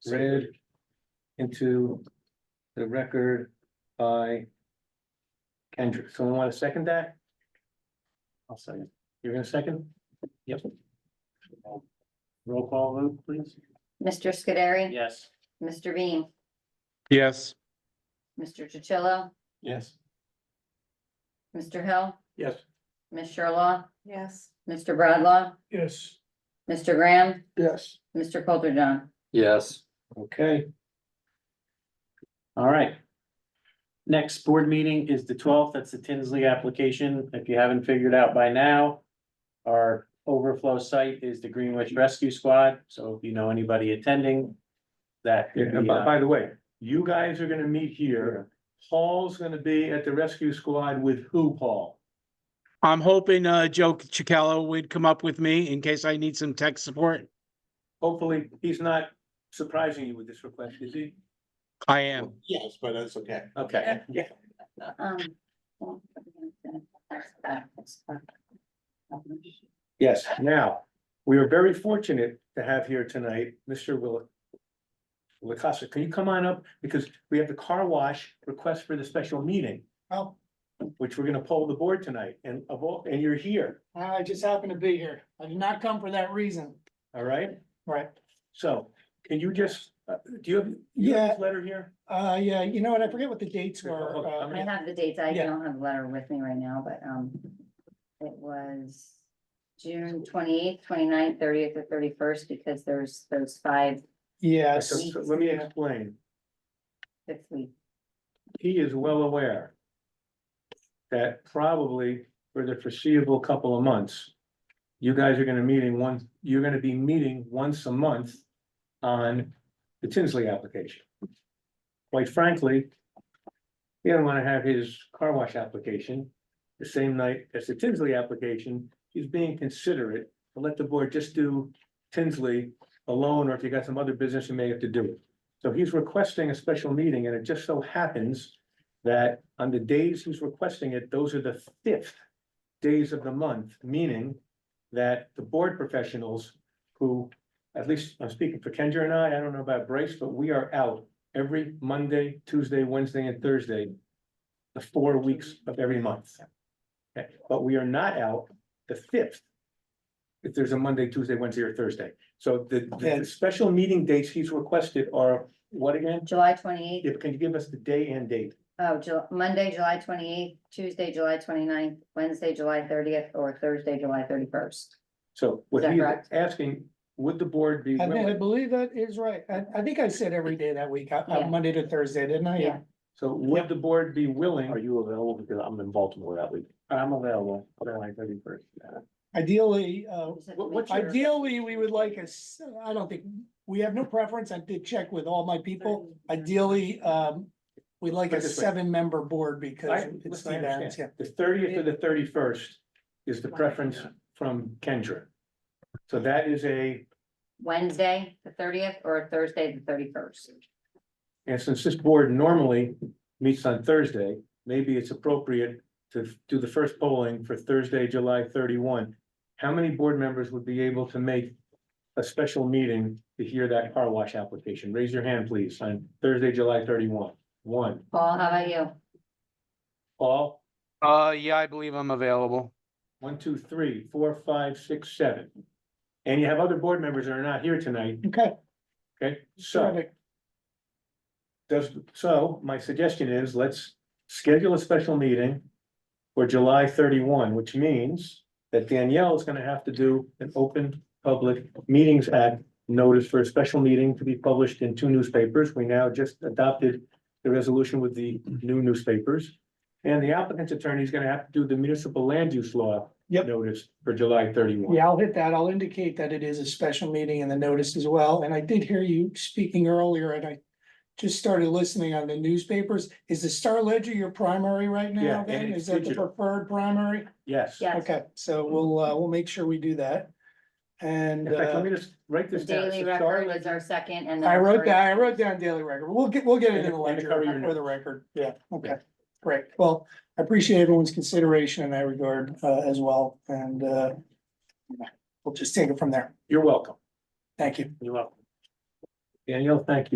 read into the record by Kendrick. Someone want to second that? I'll second. You're gonna second? Yep. Roll call vote, please. Mr. Scudery? Yes. Mr. Bean? Yes, Mr. Chichillo? Yes. Mr. Hill? Yes. Ms. Sherlaw? Yes. Mr. Bradlaugh? Yes. Mr. Graham? Yes. Mr. Coulterjohn? Yes, Okay. All right. Next board meeting is the twelfth. That's the Tinsley application. If you haven't figured out by now. Our overflow site is the Greenwich Rescue Squad, so if you know anybody attending. That could Yeah, be, by, uh, by the way, you guys are gonna meet here. Paul's gonna be at the rescue squad with who, Paul? I'm hoping uh Joe Chicallo would come up with me in case I need some tech support. Hopefully, he's not surprising you with this request, is he? I am. Yes, but that's okay. Okay. Um, Yes, now, we are very fortunate to have here tonight, Mr. Will. Lacasa, can you come on up? Because we have the car wash request for the special meeting. Oh. Which we're gonna poll the board tonight and of all, and you're here, I just happen to be here. I did not come for that reason. all right? Right. So, can you just, uh, do you have? you have this Letter here? Uh, yeah, you know what? I forget what the dates were. Okay, uh, I'm I have the dates. I Yeah. don't have the letter with me right now, but, um, it was June 28th, 29th, thirtieth, or thirty-first, because there's those five Yes. So- so Let me explain. fifth week. he is well aware. That probably for the foreseeable couple of months. You guys are gonna meeting once, you're gonna be meeting once a month on the Tinsley application. Quite frankly. He doesn't wanna have his car wash application the same night as the Tinsley application. He's being considerate to let the board just do Tinsley alone, or if you got some other business, you may have to do it. So he's requesting a special meeting, and it just so happens that on the days he's requesting it, those are the fifth days of the month, meaning that the board professionals who, at least I'm speaking for Kendra and I, I don't know about Bryce, but we are out every Monday, Tuesday, Wednesday, and Thursday, the four weeks of every month. Okay, But we are not out the fifth, if there's a Monday, Tuesday, Wednesday, or Thursday. So the, the- Okay. the special meeting dates he's requested are what again? July twenty-eighth, If, can you give us the day and date? oh, Ju- Monday, July twenty-eighth, Tuesday, July 29th, Wednesday, July thirtieth, or Thursday, July thirty-first. So what Is that he's correct? asking, would the board be I think, I willing? believe that is right. I, I think I said every day that week, uh, uh, Yeah. Monday to Thursday, didn't I? Yeah. So would the board be willing? Are you available? Because I'm in Baltimore that week. I'm available, July thirty first. Ideally, uh, What- what's your- ideally, we would like us, I don't think, we have no preference. I did check with all my people. Ideally, um, we'd like Put a it this way. seven-member board because I, it's listen, I Steve Adams, yeah. understand. The thirtieth or the thirty first is the preference from Kendra. So that is a, Wednesday, the thirtieth, or Thursday, the thirty-first. and since this board normally meets on Thursday, maybe it's appropriate to do the first polling for Thursday, July thirty-one. How many board members would be able to make a special meeting to hear that car wash application? Raise your hand, please, on Thursday, July thirty-one. One, Paul, how about you? Paul? Uh, yeah, I believe I'm available. One, two, three, four, five, six, seven. And you have other board members that are not here tonight, Okay, okay? So, terrific. does, so my suggestion is let's schedule a special meeting for July thirty-one, which means that Danielle is gonna have to do an open public meetings act notice for a special meeting to be published in two newspapers. We now just adopted the resolution with the new newspapers. And the applicant's attorney is gonna have to do the municipal land use law Yep. notice for July thirty-one. Yeah, I'll hit that. I'll indicate that it is a special meeting in the notice as well, and I did hear you speaking earlier, and I. Just started listening on the newspapers. Is the Star Ledger your primary right Yeah, now and then? it's Is that the digital. preferred primary? Yes. Yes. Okay, so we'll, uh, we'll make sure we do that. And, In fact, let uh, me just write The this down. daily So Star record is Ledger- our second and. then I wrote Courier. down, I wrote down daily record. We'll get, we'll get it And in the the- and the ledger courier for the notes. record. Yeah, okay, great. Well, I appreciate everyone's consideration in that regard, uh, as well, and, uh. We'll just take it from there. You're welcome. Thank you. You're welcome. Danielle, thank you.